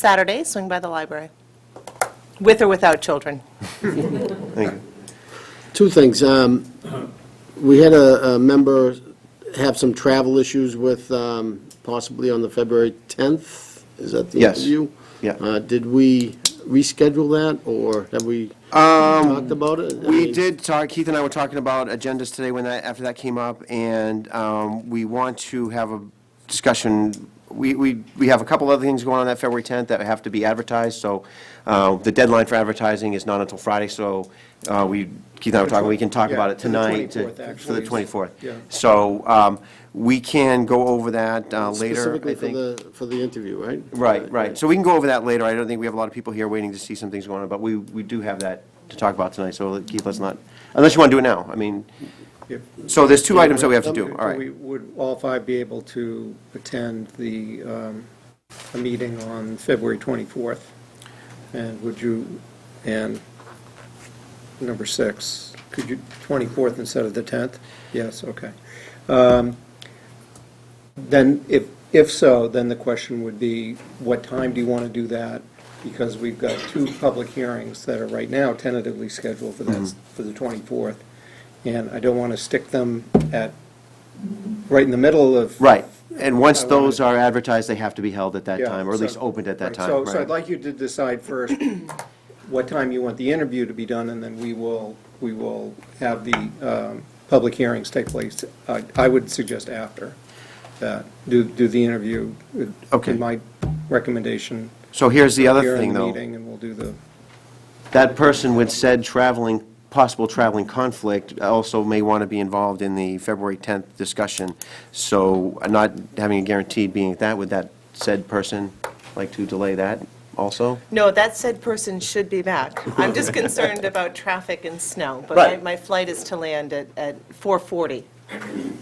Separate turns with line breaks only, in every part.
Saturday, swing by the library, with or without children.
Thank you.
Two things. Um, We had a a member have some travel issues with, um, possibly on the February 10th, is that the
Yes.
interview?
Yeah.
Uh, Did we reschedule that, or have we talked about it? I
Um, We
mean,
did talk, Keith and I were talking about agendas today when that, after that came up, and um, we want to have a discussion. We, we, we have a couple other things going on that February 10th that have to be advertised, so uh, the deadline for advertising is not until Friday, so uh, we, Keith and I were talking, we can talk about it
Yeah, to the
tonight. to-
24th,
For the
actually.
24th.
Yeah.
So um, we can go over that uh, later, I
Specifically for
think.
the, for the interview, right? Uh,
Right, right. So we can go over that later. I don't think we have a lot of people here waiting to see some things going on, but we, we do have that to talk about tonight, so let- Keith, let's not, unless you want to do it now. I mean,
If-
so there's two items that we have to do, all
We
right.
Would all five be able to attend the, um, a meeting on February 24th? And would you, and number six, could you, 24th instead of the 10th? Yes, okay. Um, Then, if, if so, then the question would be, what time do you want to do that? Because we've got two public hearings that are right now tentatively scheduled for that, for the 24th. And I don't want to stick them at, right in the middle of.
Right, and once those are advertised, they have to be held at that
Yeah,
time, or at
so-
least opened at that
right,
time,
So, so I'd
right?
like you to decide first what time you want the interview to be done, and then we will, we will have the um, public hearings take place. I I would suggest after that, do, do the interview. would be
Okay.
My recommendation.
So here's the other
Here in
thing,
the
though.
meeting, and we'll do the,
That person with said traveling, possible traveling conflict also may want to be involved in the February 10th discussion, so not having a guaranteed being at that, would that said person like to delay that also?
No, that said person should be back. I'm just concerned about traffic and snow, but
Right.
my- my flight is to land at, at 4:40,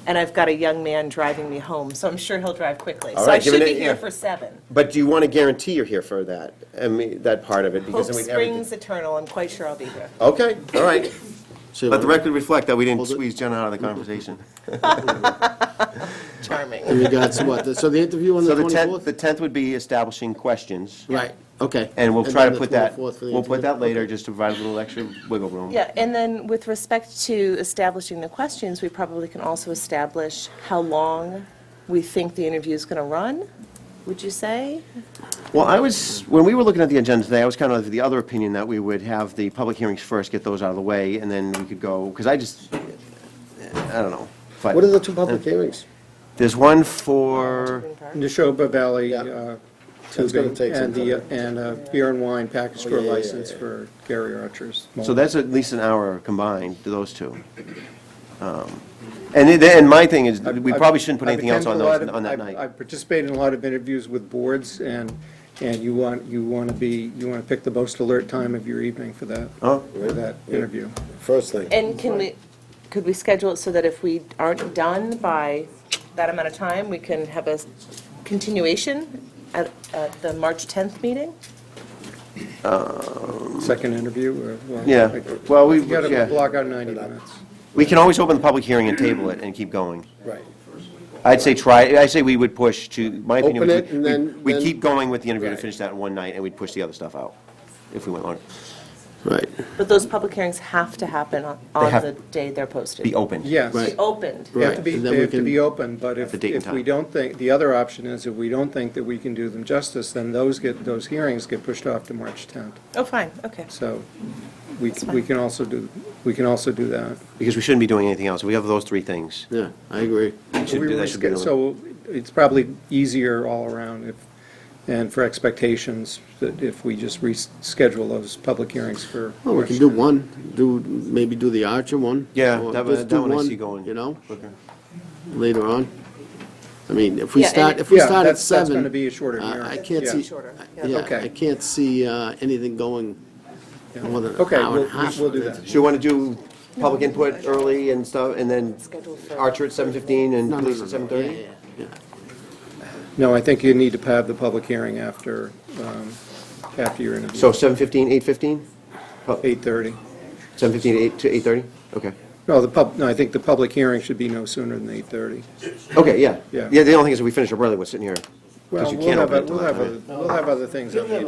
and I've got a young man driving me home, so I'm sure he'll drive quickly.
All
So I
right, give it
should be
a-
here
yeah.
for seven.
But do you want to guarantee you're here for that, I mean, that part of it?
Hope
because then we'd have everything-
springs eternal, I'm quite sure I'll be here.
Okay, all right.
So-
Let the record reflect that we didn't
Hold it.
squeeze Jenna out of the conversation.
In
Charming.
regards to what? So the interview on
So
the
the 10th,
24th?
the 10th would be establishing questions,
Right, okay.
and we'll try
then
to
the
put that,
24th for the
we'll put
interview.
that later, just to provide a little extra wiggle room.
Yeah, and then with respect to establishing the questions, we probably can also establish how long we think the interview's going to run, would you say?
Well, I was, when we were looking at the agenda today, I was kind of of the other opinion that we would have the public hearings first, get those out of the way, and then we could go, because I just, I don't know.
What are
But
the two public hearings?
there's one for,
Neshoba Valley
Yeah.
uh,
That's gonna
tubing,
take some
and the, and a beer and wine package
Oh,
store
yeah, yeah, yeah,
license
yeah.
for Gary Archer's.
so that's at least an hour combined, those two. Um, And, it- and my thing is, we
I've-
probably shouldn't put
I've
anything else on
attended a lot
those,
of-
on that
I've-
night.
I've participated in a lot of interviews with boards, and, and you want, you want to be, you want to pick the most alert time of your evening for that,
Oh.
for that interview.
First thing.
And can we, could we schedule it so that if we aren't done by that amount of time, we can have a continuation at, at the March 10th meeting?
Second interview, or? well,
Yeah,
like-
well, we-
You got
yeah.
to block out 90 minutes.
We can always open the public hearing and table it and keep going.
Right.
I'd say try, I'd say we would push to, my opinion.
Open
was
it
we-
and then-
We'd
then-
keep going with the interview to
Right.
finish that in one night, and we'd push the other stuff out, if we went on,
Right.
But those public hearings have to happen on on
have-
the day they're posted.
be open.
Yes.
Right.
Be opened.
They have to
Right,
be,
and then
they
we
have to
can-
be open, but if,
the date and
if we
time.
don't think, the other option is if we don't think that we can do them justice, then those get, those hearings get pushed off to March 10th.
Oh, fine, okay.
So we, we can also do, we can also do that.
Because we shouldn't be doing anything else. We have those three things.
Yeah, I agree.
We should
We
do-
were
that should be
sca-
the-
So it's probably easier all around if, and for expectations, that if we just reschedule those public hearings for.
Well, we can
March
do
10th.
one, do, maybe do the Archer one.
Yeah,
or
that one-
just
that
do
one I see going.
You know,
Okay.
later on. I mean, if we
Yeah, and
start,
it-
if we
Yeah,
start at
that's- that's
seven.
gonna be a shorter
uh,
hearing.
I can't
Yeah.
see,
Shorter, yeah.
yeah,
Okay.
I can't see uh, anything going more than an
Okay,
hour
we'll,
and a half.
we'll do that.
So you want to do public input early and stuff, and then
Scheduled for-
Archer at 7:15 and
No, no,
police
no,
at
no, yeah,
7:30?
yeah,
No, I think you need to have the public hearing after, um, after your interview.
So 7:15, 8:15?
8:30.
7:15 Oh, to 8 to 8:30? Okay.
No, the pub, no, I think the public hearing should be no sooner than 8:30.
Okay, yeah.
Yeah.
Yeah, the only thing is if we finish up early, we're sitting here
Well,
you
we'll
can't
have,
open
a-
it till
we'll
that
have, a-
time.
we'll have other things on the